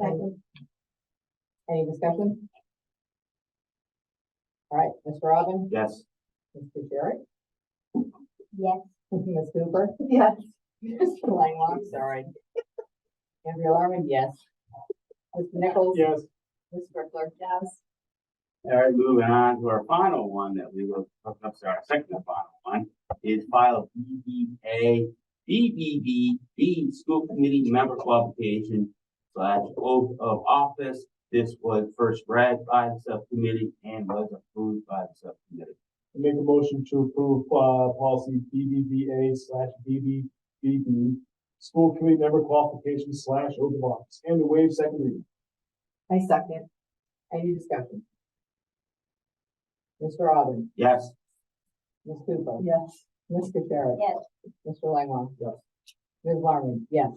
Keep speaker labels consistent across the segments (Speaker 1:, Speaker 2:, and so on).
Speaker 1: Second.
Speaker 2: Any discussion? All right, Ms. Robin,
Speaker 3: Yes.
Speaker 2: Mr. Jerry,
Speaker 1: Yes.
Speaker 2: Ms. Cooper,
Speaker 1: Yes.
Speaker 2: Mr. Langlock, sorry. Andrea Larman, yes. Mr. Nichols?
Speaker 3: Yes.
Speaker 2: Ms. Strickler? Yes.
Speaker 3: All right, moving on to our final one that we were, oh, I'm sorry, second and final one is file BBA, BBB, School Committee Member Qualification slash oath of office. This was first read by the subcommittee and was approved by the subcommittee.
Speaker 4: Make a motion to approve, uh, policy BBBA slash BBBB, school committee member qualification slash open box, and the waive second reading.
Speaker 2: I second. Any discussion? Mr. Robin,
Speaker 3: Yes,
Speaker 2: Ms. Cooper?
Speaker 1: Yes.
Speaker 2: Mr. Jerry?
Speaker 1: Yes.
Speaker 2: Mr. Langlock?
Speaker 4: Yes.
Speaker 2: Ms. Larman, yes.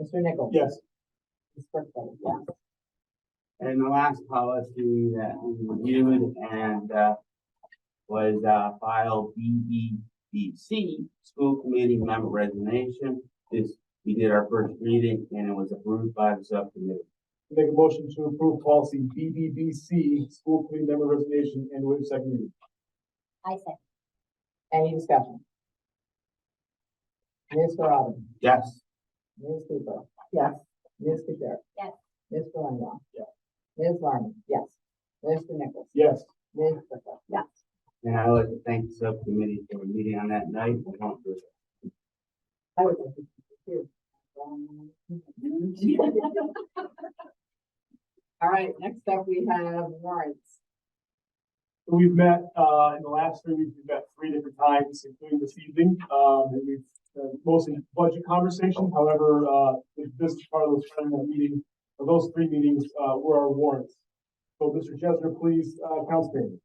Speaker 2: Mr. Nichols?
Speaker 4: Yes,
Speaker 2: Ms. Strickler? Yes.
Speaker 3: and the last policy that we reviewed and, uh, was, uh, file BBBC, School Committee Member Resignation. This, we did our first reading and it was approved by the subcommittee.
Speaker 4: make a motion to approve policy BBBC, school committee member resignation, and waive second reading.
Speaker 1: I second.
Speaker 2: Any discussion? Mr. Robin?
Speaker 3: Yes.
Speaker 2: Ms. Cooper? Yes. Ms. Keshar?
Speaker 1: Yes.
Speaker 2: Mr. Langwell?
Speaker 4: Yes.
Speaker 2: Ms. Larmen? Yes. Mr. Nichols?
Speaker 4: Yes,
Speaker 2: Ms. Strickler? Yes.
Speaker 3: And I would like to thank the subcommittee for meeting on that night. We don't do it.
Speaker 2: I would like to too. Um, All right, next up, we have warrants.
Speaker 4: we've met, uh, in the last three weeks, we've met three different times, including this evening, um, and we've uh, mostly budget conversation, however, uh, this is part of the part of that meeting, or those three meetings, uh, were our warrants. So, Mr. Chesner, please, uh, count statement.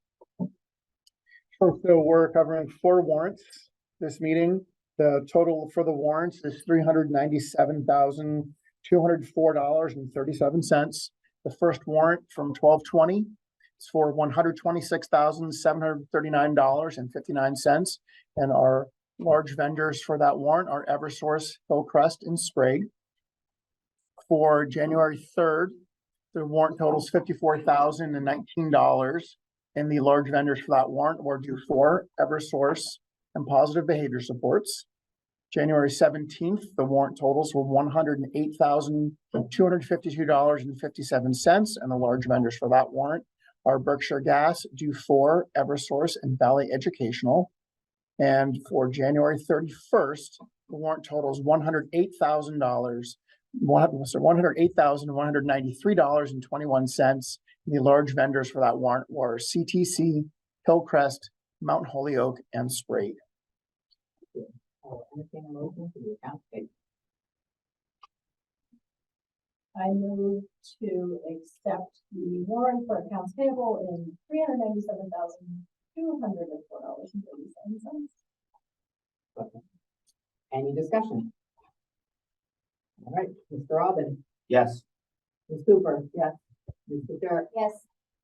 Speaker 5: Sure, so we're covering four warrants this meeting. The total for the warrants is three hundred ninety-seven thousand, two hundred four dollars and thirty-seven cents. The first warrant from twelve twenty is for one hundred twenty-six thousand, seven hundred thirty-nine dollars and fifty-nine cents. And our large vendors for that warrant are Eversource, Hillcrest, and Sprague. For January third, the warrant totals fifty-four thousand and nineteen dollars. And the large vendors for that warrant were due for Eversource and Positive Behavior Supports. January seventeenth, the warrant totals were one hundred and eight thousand, two hundred fifty-two dollars and fifty-seven cents, and the large vendors for that warrant are Berkshire Gas, due for Eversource, and Valley Educational. And for January thirty-first, the warrant totals one hundred eight thousand dollars, one, sorry, one hundred eight thousand, one hundred ninety-three dollars and twenty-one cents, the large vendors for that warrant were CTC, Hillcrest, Mount Holyoke, and Sprague.
Speaker 2: I'll entertain a motion for the account statement.
Speaker 1: I move to accept the warrant for accounts payable in three hundred ninety-seven thousand, two hundred and four dollars and thirty-seven cents.
Speaker 2: Any discussion? All right, Mr. Robin?
Speaker 3: Yes,
Speaker 2: Ms. Cooper? Yes. Ms. Keshar?
Speaker 1: Yes.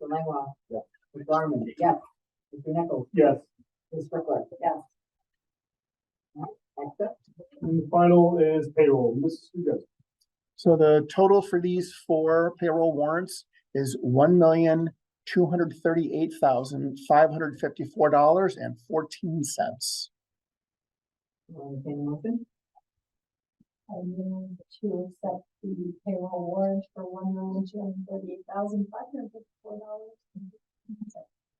Speaker 2: Mr. Langwell?
Speaker 4: Yes.
Speaker 2: Ms. Larmen? Yes. Mr. Nichols?
Speaker 4: Yes,
Speaker 2: Ms. Strickler? Yes. All right, Next up,
Speaker 4: and the final is payroll, Mrs. Kujus.
Speaker 5: So the total for these four payroll warrants is one million, two hundred thirty-eight thousand, five hundred fifty-four dollars and fourteen cents.
Speaker 2: I'll entertain a motion.
Speaker 1: I move to accept the payroll warrant for one million, two hundred thirty-eight thousand, five hundred fifty-four dollars.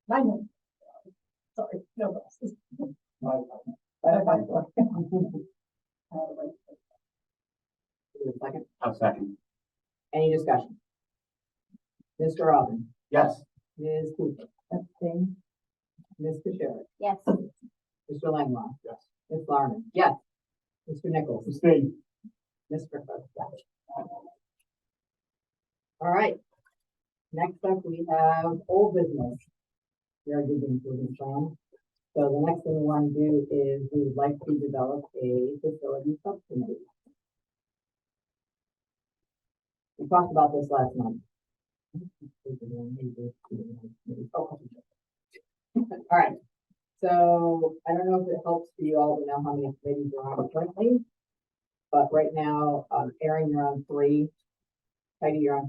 Speaker 1: Nine hundred. Sorry, no glasses.
Speaker 2: Five by four. Give it a Second,
Speaker 3: I'll second.
Speaker 2: any discussion? Mr. Robin,
Speaker 3: Yes,
Speaker 2: Ms. Cooper. Abstain. Ms. Fisher,
Speaker 1: Yes.
Speaker 2: Mr. Langwell.
Speaker 4: Yes.
Speaker 2: Ms. Larmen, yes. Mr. Nichols,
Speaker 4: Abstain.
Speaker 2: Ms. Strickler. yes. All right. Next up, we have old business. We are using business plan. So the next thing we want to do is we would like to develop a facility subcommittee. We talked about this last month. All right, so I don't know if it helps for you all to know how many committees are on currently. But right now, um, Erin, you're on three. Heidi, you're on